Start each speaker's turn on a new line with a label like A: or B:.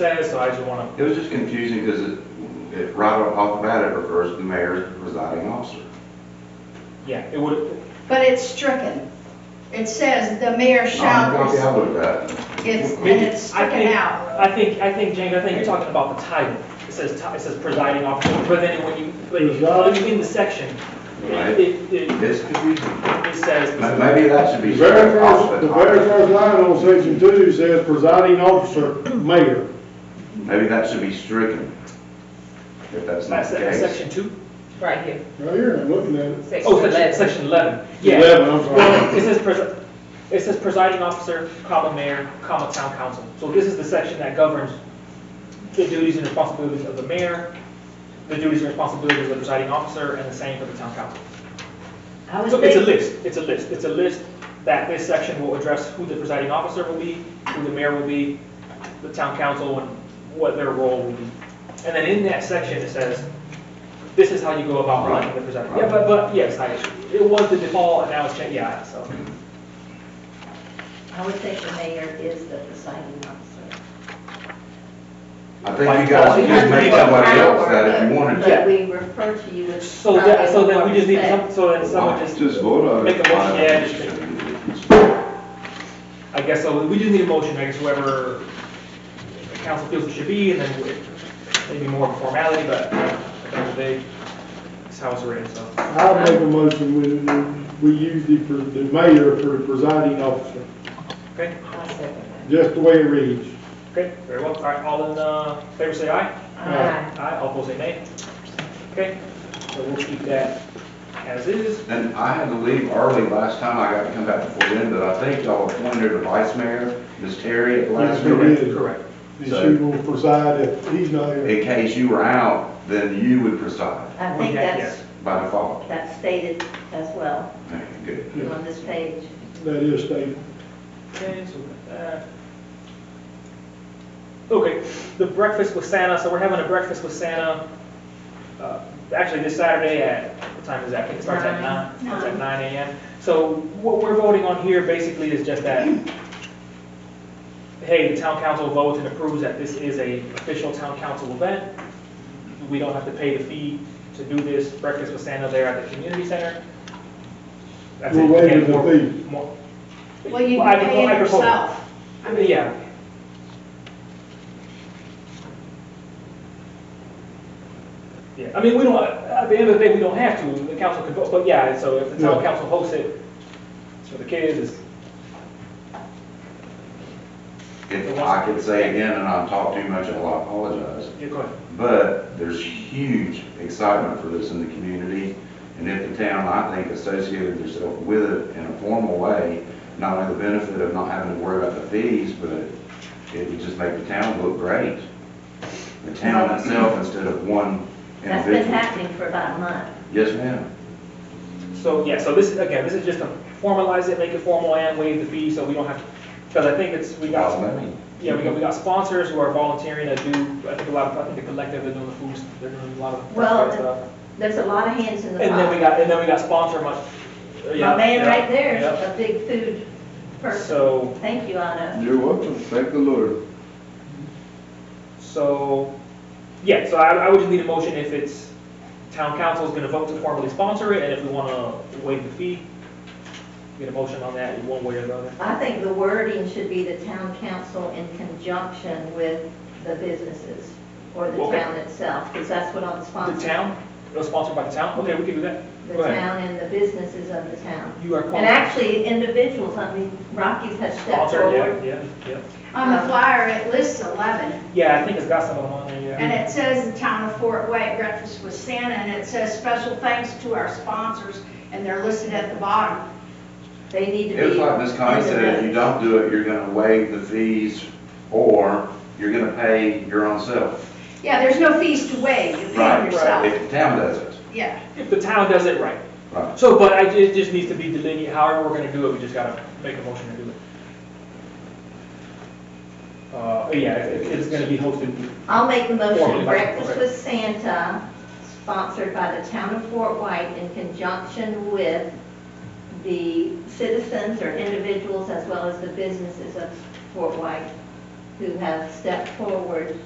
A: satisfied, you want
B: It was just confusing because it, it, right off the bat, it refers to the mayor's presiding officer.
A: to, yeah, it would,
C: But it's stricken. It says the mayor
B: I'm
C: shall,
B: gonna be out of that.
C: it's, and it's
A: I
C: stricken
A: think,
C: out.
A: I think, I think, James, I think you're talking about the title. It says, ti- it says presiding officer, but then when you, when you look in the section,
B: Right.
A: it, it, it-
B: It's confusing.
A: it says.
B: Ma- Maybe that should
D: The
B: be.
D: very
B: struck off
D: first, the very
B: top.
D: first line on section two says presiding officer, mayor.
B: Maybe that should be stricken. If that's not
A: That's
B: the
A: that-
B: case.
A: section two?
E: Right here,
D: Right here, I'm looking at it.
E: section
A: Oh, it's
E: eleven.
A: at section eleven. Yeah.
D: Eleven, I'm sorry.
A: Well, It says presi, it says presiding officer, comma mayor, comma town council. So this is the section that governs the duties and responsibilities of the mayor, the duties and responsibilities of the presiding officer, and the same for the town council.
E: I was
A: So it's a
E: thinking,
A: list, it's a list, it's a list that this section will address who the presiding officer will be, who the mayor will be, the town council, and what their role will be. And then in that section, it says, this is how you go about electing the presiding. Yeah, but, but, yes, I, it was the default, and now it's changed, yeah, so.
E: I would think the mayor is the presiding officer.
B: I think you guys could just make somebody else that if you wanted to.
E: But we refer to you as.
A: So that, so then we just need,
E: presiding
A: some-
E: officer.
A: so then someone just,
B: vote on
A: Make a motion, yeah, I guess, so we just need a motion, I guess whoever the council feels it should be, and then we- maybe more of a formality, but at the end of the day, it's how it's written, so.
D: I'll make a motion, we, we use the, pre- the mayor for the presiding officer,
A: Okay,
E: I second
D: just the way it reads.
A: okay, very well. All right, all in uh, favor say aye.
E: that.
A: Aye, all opposed say nay. Okay, so we'll keep that as is.
B: And I had to leave early last time, I got to come back before then, but I think y'all appointed a vice mayor, Ms. Terry, at the last
D: Yes, we
B: meeting.
D: did.
A: Correct.
D: And she will preside if he's not here.
B: In case you were out, then you would preside
E: I
A: We
E: think
A: had-
E: that's,
B: by default.
E: that's stated as well
B: Okay, Good.
D: Yeah.
E: on this page.
D: That is stated.
A: yes. Okay, so we've got that. uh, Okay, the breakfast with Santa, so we're having a breakfast with Santa, uh, actually this Saturday at, what time is that? I think it starts at nine,
E: Nine.
A: starts at nine AM. So what we're voting on here basically is just that, hey, the town council votes and approves that this is a official town council event. We don't have to pay the fee to do this breakfast with Santa there at the community center. That's it.
D: We're waiving the
A: Again, more-
D: fee.
A: more-
C: Well, you
A: I-
C: can pay
A: I
C: it
A: propose-
C: yourself.
A: I mean, yeah. Yeah, I mean, we don't, at the end of the day, we don't have to, the council could vote, but yeah, so if the town
D: Yeah.
A: council hosts it, it's for the kids, it's
B: If I could say again, and I've talked too much, I'll apologize.
A: Yeah, go ahead.
B: But there's huge excitement for this in the community, and if the town, I think, associated itself with it in a formal way, not only the benefit of not having to worry about the fees, but it would just make the town look great. The town itself instead of one
E: That's been
B: individual.
E: happening for about a month.
B: Yes, ma'am.
A: So, yeah, so this, is again, this is just to formalize it, make it formal and waive the fee, so we don't have to, because I think it's, we got,
B: Well, let me-
A: yeah, we got, we got sponsors who are volunteering to do, I think a lot of, I think the collective, they're doing the food, they're doing a lot of.
E: Well,
A: stuff.
E: There's a lot of hands in the
A: And then we
E: pot.
A: got, and then we got sponsor money.
E: My man right there is
A: Yep.
E: a big food person.
A: So,
E: Thank you, Anna.
F: You're welcome, thank the Lord.
A: so, yeah, so I, I would just need a motion if it's, town council's gonna vote to formally sponsor it, and if we wanna waive the fee, get a motion on that in one way or the other.
E: I think the wording should be the town council in conjunction with the businesses or the
A: Okay.
E: town itself, because that's what I'm sponsoring.
A: The town, it was sponsored by the town, okay, we can do that.
E: the
A: Go ahead.
E: town and the businesses of the town.
A: You are
E: And actually, individuals, I mean, Rockies has stepped
A: Sponsor,
E: forward.
A: yeah, yeah, yeah.
C: On the flyer, it lists 11,
A: Yeah, I think it's got some of them on there,
C: and
A: yeah.
C: it says the town of Fort White breakfast with Santa, and it says special thanks to our sponsors, and they're listed at the bottom.
E: They need to be.
B: It was like Ms. Connie
E: in the
B: said, if you
E: notes.
B: don't do it, you're gonna waive the fees, or you're gonna pay your own self.
C: Yeah, there's no fees to waive, you pay
B: Right,
C: it yourself.
B: If the town does it,
C: Yeah,
A: If the town does it right.
B: right.
A: So, but I, it just needs to be delineated, however we're gonna do it, we just gotta make a motion to do it. Uh, yeah, it- it's gonna be hosted,
E: I'll make the
A: Formally,
E: motion,
A: okay.
E: Breakfast with Santa, sponsored by the town of Fort White in conjunction with the citizens or individuals as well as the businesses of Fort White who have stepped forward